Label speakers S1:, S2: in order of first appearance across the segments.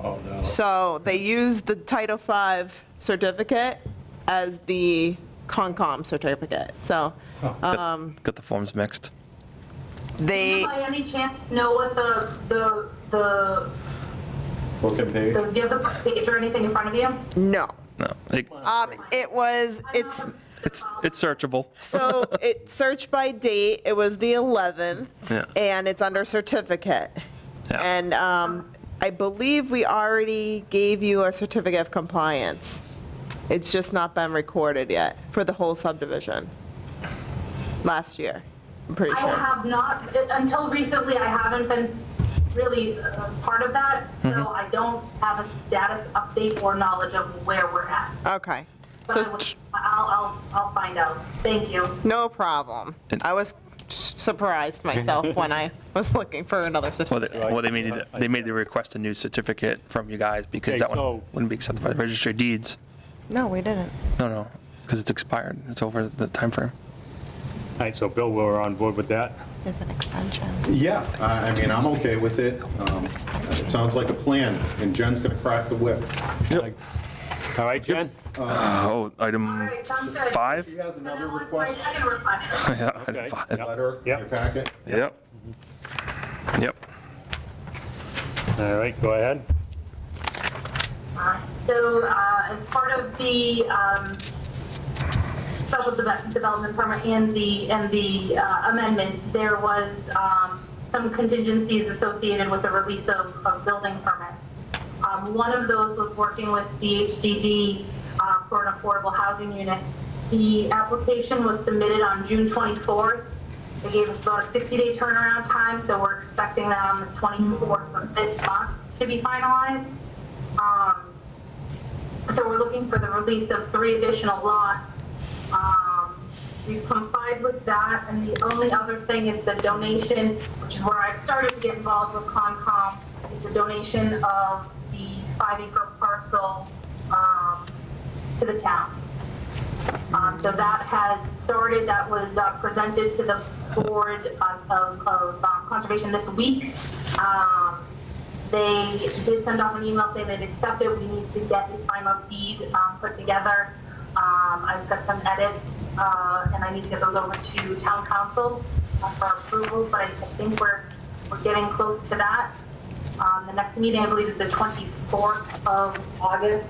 S1: Oh, no.
S2: So they used the Title V certificate as the Concom certificate. So um,
S3: Got got the forms mixed.
S4: Do
S2: they,
S4: you by any chance know what the, the, the,
S1: Book and page?
S4: the- do you have the page or anything in front of you?
S2: no.
S3: No, it-
S2: Um, It was, it's,
S3: it's, it's searchable.
S2: so it searched by date, it was the 11th,
S3: Yeah.
S2: and it's under certificate.
S3: Yeah.
S2: And um, I believe we already gave you a certificate of compliance. It's just not been recorded yet for the whole subdivision. Last year, I'm pretty
S4: I
S2: sure.
S4: have not, until recently, I haven't been really uh, part of that, so
S2: Mm-hmm.
S4: I don't have a status update or knowledge of where we're at.
S2: Okay.
S4: But I
S2: So
S4: will- I'll, I'll, I'll find out. Thank you.
S2: No problem.
S3: And-
S2: I was surprised myself when I was looking for another
S3: Well,
S2: certificate.
S3: they, well, they made, it- they made the request a new certificate from you guys because
S5: Okay,
S3: that
S5: so-
S3: one wouldn't be accepted by the registry of deeds.
S2: No, we didn't.
S3: No, no, because it's expired. It's over the time frame.
S5: All right, so Bill, we're on board with that.
S2: It's an extension.
S1: Yeah, I I mean, I'm okay with it. Um, It sounds like a plan, and Jen's going to crack the whip.
S5: All right, Jen?
S3: Oh,
S4: All
S3: item
S4: right, sounds good.
S3: five?
S1: She has another
S4: Now it's my
S1: request,
S4: second request.
S3: Yeah, item
S5: Okay,
S3: five.
S1: letter, in your
S5: Yep.
S1: packet.
S3: Yep. Yep.
S5: All right, go ahead.
S4: So, uh, as part of the, um, special deve- development permit and the, and the uh, amendment, there was, um, some contingencies associated with the release of, of building permits. Um, one of those was working with DHCD, uh, for an affordable housing unit. The application was submitted on June 24th. They gave us about a 60-day turnaround time, so we're expecting that on the 24th of this month to be finalized. Um, so we're looking for the release of three additional lots. Um, We've complied with that, and the only other thing is the donation, which is where I started to get involved with Concom, is the donation of the five acre parcel um, to the town. Um, So that has started, that was uh, presented to the Board of- of of, um, Conservation this week. Um, They did send off an email saying they'd accepted, we need to get the final deed um, put together. Um, I've got some edits, uh, and I need to get those over to town council uh, for approval, but I I think we're, we're getting close to that. Um, The next meeting, I believe, is the 24th of August.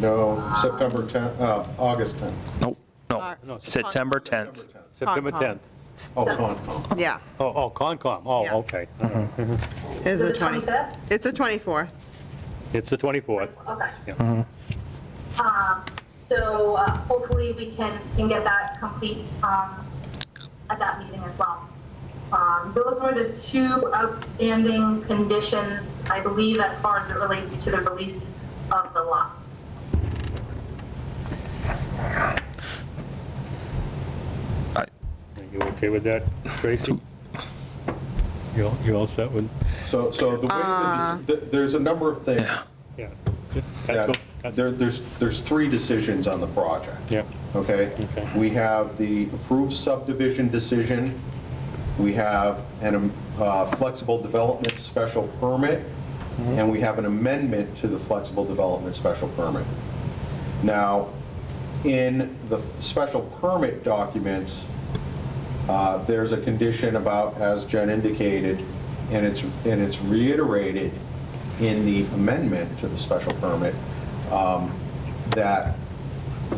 S1: No, September 10th, uh, August 10th.
S3: Nope, no.
S2: No, it's
S3: September
S2: Concom.
S3: 10th.
S5: September
S2: Concom.
S5: 10th.
S1: Oh, Concom.
S2: Yeah,
S5: Oh, oh, Concom, oh,
S2: Yeah.
S5: okay.
S2: it's
S4: Is
S2: the
S4: it
S2: 20,
S4: 25th?
S2: it's the 24th.
S5: It's the 24th.
S4: Okay.
S5: Yeah.
S4: Um, So uh, hopefully we can, can get that complete um, at that meeting as well. Um, Those were the two outstanding conditions, I believe, as far as it relates to the release of the lot.
S3: I-
S5: Are you okay with that, Tracy? You all- you all set with,
S1: So, so the way, that this- th- there's a number of things.
S5: yeah. That's
S1: that-
S5: what- that's-
S1: there- There's, there's three decisions on the project.
S5: Yeah.
S1: Okay?
S5: Okay.
S1: We have the approved subdivision decision, we have an uh, flexible development special permit, and we have an amendment to the flexible development special permit. Now, in the special permit documents, uh, there's a condition about, as Jen indicated, and it's, and it's reiterated in the amendment to the special permit, um, that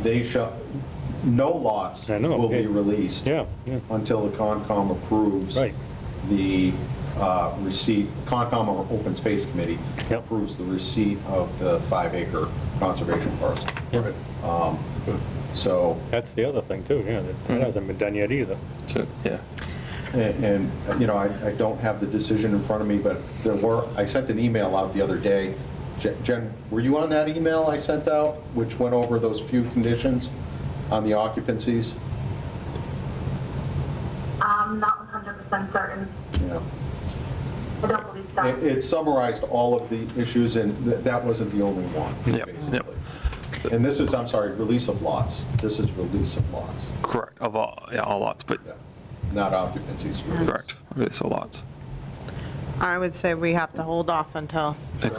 S1: they shall, no lots
S5: I know,
S1: will be
S5: yeah.
S1: released
S5: Yeah, yeah.
S1: until the Concom approves
S5: Right.
S1: the uh, receipt, Concom or Open Space Committee
S5: Yep.
S1: approves the receipt of the five-acre conservation parcel.
S5: Yep.
S1: Um, So,
S5: That's the other thing, too, yeah, that that hasn't been done yet either.
S3: So, yeah.
S1: And, and, you know, I, I don't have the decision in front of me, but there were, I sent an email out the other day. Je- Jen, were you on that email I sent out, which went over those few conditions on the occupancies?
S4: I'm not 100% certain.
S1: Yeah.
S4: I don't believe so.
S1: It, it summarized all of the issues, and th- that wasn't the only one,
S3: Yep,
S1: basically.
S3: yep.
S1: And this is, I'm sorry, release of lots. This is release of lots,
S3: Correct, of all, yeah, all lots, but
S1: yeah, not occupancies. release.
S3: correct. Okay, so lots.
S2: I would say we have to hold off until